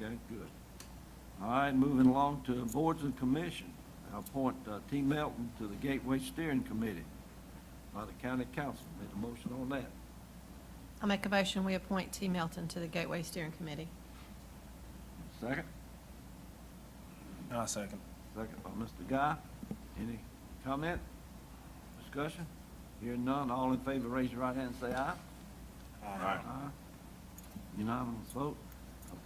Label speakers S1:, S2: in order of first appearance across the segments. S1: Okay, good. All right, moving along to boards and commission. I appoint uh, T. Melton to the Gateway Steering Committee by the county council. Make a motion on that.
S2: I make a motion, we appoint T. Melton to the Gateway Steering Committee.
S1: Second?
S3: I second.
S1: Second by Mr. Guy. Any comment? Discussion? Hearing none, all in favor, raise your right hand and say aye.
S3: Aye.
S1: Unanimous vote.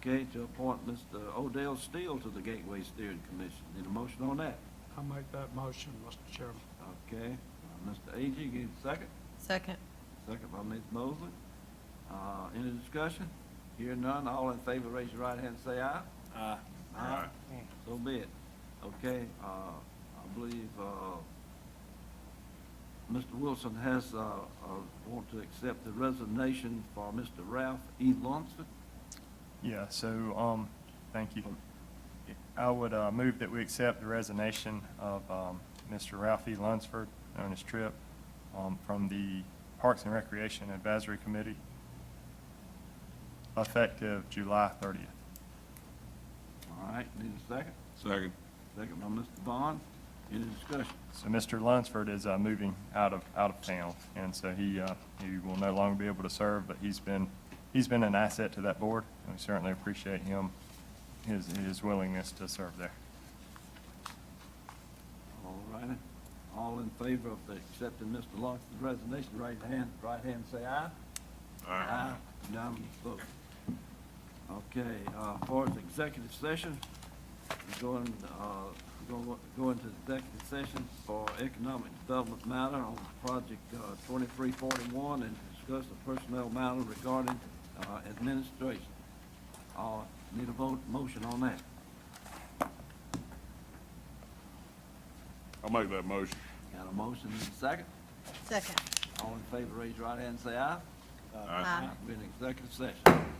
S1: Okay, to appoint Mr. Odell Steele to the Gateway Steering Commission. Need a motion on that?
S4: I make that motion, Mr. Chairman.
S1: Okay, uh, Mr. A.G., give a second.
S2: Second.
S1: Second by Ms. Mosley. Uh, Any discussion? Hear none, all in favor, raise your right hand and say aye.
S3: Aye.
S1: Aye. So be it. Okay, uh, I believe uh, Mr. Wilson has, uh, uh, want to accept the resignation for Mr. Ralph E. Lunsford.
S5: Yeah, so, um, thank you. I would, uh, move that we accept the resignation of, um, Mr. Ralphie Lunsford on his trip, um, from the Parks and Recreation Advisory Committee, effective July thirtieth.
S1: All right, need a second?
S6: Second.
S1: Second by Mr. Bond. Any discussion?
S5: So Mr. Lunsford is, uh, moving out of, out of town, and so he, uh, he will no longer be able to serve, but he's been, he's been an asset to that board, and we certainly appreciate him, his, his willingness to serve there.
S1: All righty. All in favor of the accepting Mr. Lunsford's resignation, right hand, right hand, say aye. Aye. Unanimous vote. Okay, uh, for the executive session, we're going, uh, going, going to executive session for economic development matter on project, uh, twenty-three forty-one and discuss the personnel matter regarding, uh, administration. Uh, need a vote, motion on that.
S6: I'll make that motion.
S1: Got a motion and a second?
S2: Second.
S1: All in favor, raise your right hand and say aye.
S6: Aye.
S1: We're in executive session.